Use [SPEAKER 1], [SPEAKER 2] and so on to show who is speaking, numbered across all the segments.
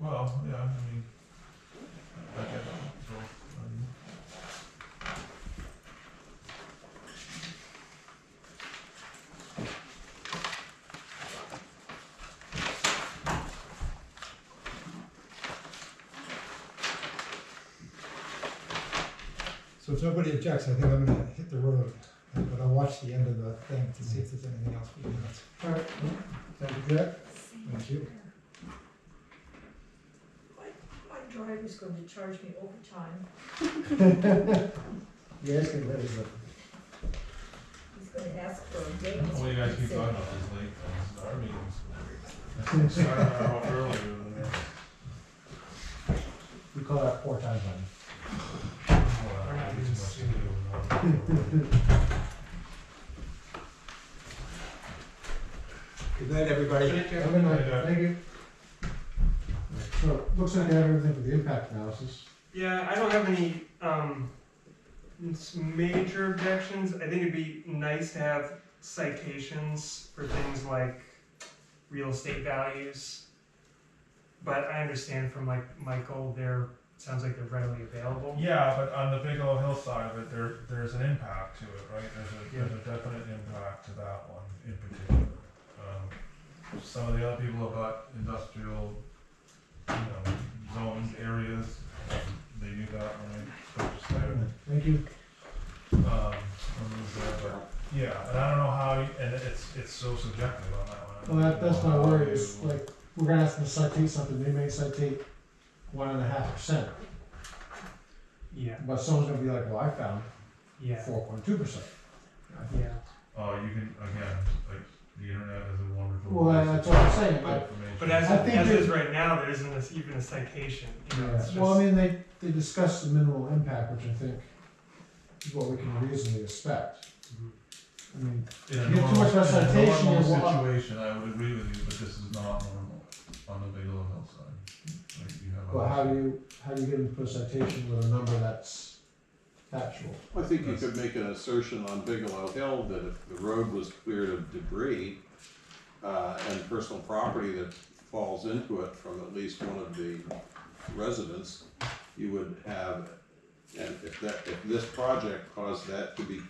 [SPEAKER 1] Well, yeah, I mean, I get that, so, um,
[SPEAKER 2] So if nobody objects, I think I'm gonna hit the road, uh, but I'll watch the end of the thing to see if there's anything else we can ask. Alright, thank you, Jack. Thank you.
[SPEAKER 3] My driver's going to charge me overtime.
[SPEAKER 4] Yes, it is.
[SPEAKER 3] He's going to ask for a
[SPEAKER 1] I
[SPEAKER 3] date.
[SPEAKER 1] don't know why you guys keep talking about this late, it's our meetings. Started an hour earlier than that.
[SPEAKER 4] We call that four times on.
[SPEAKER 1] Well, I don't think it's much to do, no.
[SPEAKER 4] Good night, everybody.
[SPEAKER 2] Have a good night.
[SPEAKER 1] Yeah.
[SPEAKER 2] thank you.
[SPEAKER 4] So, looks like I have everything for the impact analysis.
[SPEAKER 5] Yeah, I don't have any um, s- major objections. I think it'd be nice to have citations for things like real estate values. But I understand from like Michael, they're sounds like they're readily available.
[SPEAKER 1] Yeah, but on the Bigelow Hill side of it, there, there's an impact to it, right? There's a, there's a definite impact to that one in particular. Um, Some of the other people about industrial, you know, zones, areas, they do that when I purchased there.
[SPEAKER 4] Thank you.
[SPEAKER 1] Um, when it was there, but, yeah, and I don't know how, you- and it's, it's so subjective on that one. I don't
[SPEAKER 4] Well, that,
[SPEAKER 1] know
[SPEAKER 4] that's my
[SPEAKER 1] how
[SPEAKER 4] worry,
[SPEAKER 1] you-
[SPEAKER 4] is like, we're gonna ask them to citate something, they may citate one and a half percent,
[SPEAKER 5] Yeah,
[SPEAKER 4] but someone's gonna be like, well, I found
[SPEAKER 5] yeah,
[SPEAKER 4] four point two percent.
[SPEAKER 5] yeah.
[SPEAKER 1] Oh, you can, again, like, the internet is a wonderful.
[SPEAKER 4] Well,
[SPEAKER 1] place
[SPEAKER 4] that's
[SPEAKER 1] to
[SPEAKER 4] what I'm
[SPEAKER 1] get
[SPEAKER 4] saying, but-
[SPEAKER 1] information.
[SPEAKER 5] But as,
[SPEAKER 4] I think
[SPEAKER 5] as
[SPEAKER 4] that-
[SPEAKER 5] is right now, there isn't this, even a citation. You know, it's just,
[SPEAKER 4] Well, I mean, they, they discussed the minimal impact, which I think is what we can reasonably expect.
[SPEAKER 5] Mhm.
[SPEAKER 4] I mean,
[SPEAKER 1] In a
[SPEAKER 4] You get too
[SPEAKER 1] normal,
[SPEAKER 4] much
[SPEAKER 1] in a
[SPEAKER 4] recitation, you're wa-
[SPEAKER 1] normal situation, I would agree with you, but this is not normal on the Bigelow Hill side. Like you have a-
[SPEAKER 4] well, how do you, how do you get them to put a citation with a number that's factual?
[SPEAKER 6] I think you could make an assertion on Bigelow Hill that if the road was cleared of debris, uh, and personal property that falls into it from at least one of the residents, you would have, and if that, if this project caused that to be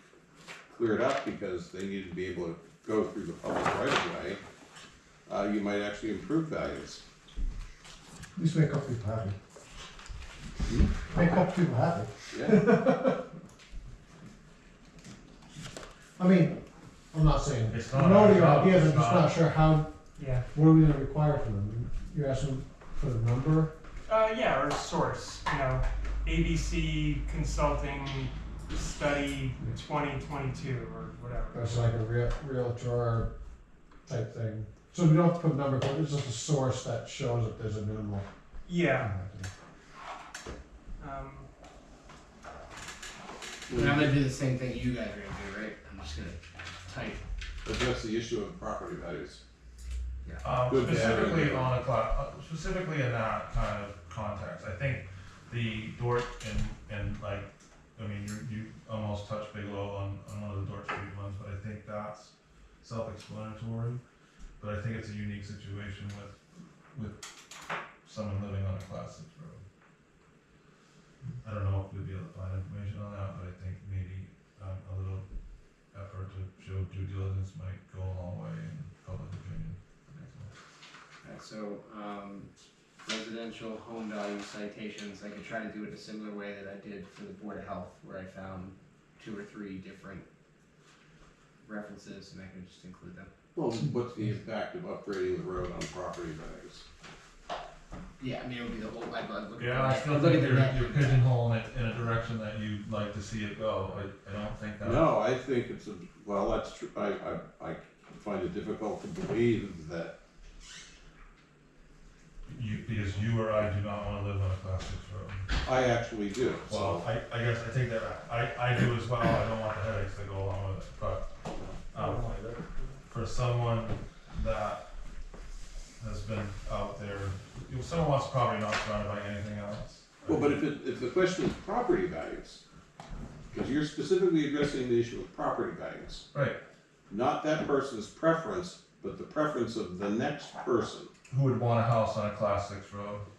[SPEAKER 6] cleared up because they needed to be able to go through the public right of way, uh, you might actually improve values.
[SPEAKER 4] At least make up people happy. Make up people happy.
[SPEAKER 6] Yeah,
[SPEAKER 4] I mean, I'm not saying,
[SPEAKER 1] It's
[SPEAKER 4] I
[SPEAKER 1] not
[SPEAKER 4] know
[SPEAKER 1] our
[SPEAKER 4] your
[SPEAKER 1] job,
[SPEAKER 4] ideas, I'm
[SPEAKER 1] it's
[SPEAKER 4] just
[SPEAKER 1] not-
[SPEAKER 4] not sure how,
[SPEAKER 5] yeah.
[SPEAKER 4] what are we gonna require from them? You're asking for the number?
[SPEAKER 5] Uh, yeah, or source, you know, ABC Consulting Study 2022 or
[SPEAKER 4] Or
[SPEAKER 5] whatever.
[SPEAKER 4] it's like a real, real drawer type thing? So we don't have to put a number, but it's just a source that shows that there's a minimal.
[SPEAKER 5] Yeah.
[SPEAKER 4] impact.
[SPEAKER 5] Um,
[SPEAKER 7] And I'm gonna do the same thing you guys are gonna do, right? I'm just gonna type.
[SPEAKER 6] address the issue of property values.
[SPEAKER 1] Um,
[SPEAKER 6] Good to have
[SPEAKER 1] specifically
[SPEAKER 6] it.
[SPEAKER 1] on a cla- uh, specifically in that kind of context, I think the Dort and, and like, I mean, you, you almost touched Bigelow on, on one of the Dort Street ones, but I think that's self-explanatory. But I think it's a unique situation with, with someone living on a class six road. I don't know if we'll be able to find information on that, but I think maybe, um, a little effort to show due diligence might go a long way in public opinion.
[SPEAKER 7] Alright, so, um, residential home value citations, I could try to do it a similar way that I did for the Board of Health, where I found two or three different references and I could just include them.
[SPEAKER 6] Well, what's the impact of upgrading the road on property values?
[SPEAKER 7] Yeah, I mean, it would be the whole, I'd, I'd look at the
[SPEAKER 1] Yeah, I
[SPEAKER 7] net-
[SPEAKER 1] still
[SPEAKER 7] I'd look at
[SPEAKER 1] think
[SPEAKER 7] the
[SPEAKER 1] you're,
[SPEAKER 7] net.
[SPEAKER 1] you're pigeonholing it in a direction that you'd like to see it go, I, I don't think that.
[SPEAKER 6] No, I think it's a, well, that's true, I, I, I find it difficult to believe that,
[SPEAKER 1] You, because you or I do not wanna live on a class six road.
[SPEAKER 6] I actually do,
[SPEAKER 1] Well,
[SPEAKER 6] so.
[SPEAKER 1] I, I guess I take that back, I, I do as well, I don't want the headaches that go along with it, but, um, for someone that has been out there, if someone wants property not surrounded by anything else.
[SPEAKER 6] Well, but if it, if the question is property values, because you're specifically addressing the issue of property values,
[SPEAKER 1] Right,
[SPEAKER 6] not that person's preference, but the preference of the next person.
[SPEAKER 1] who would want a house on a class six road?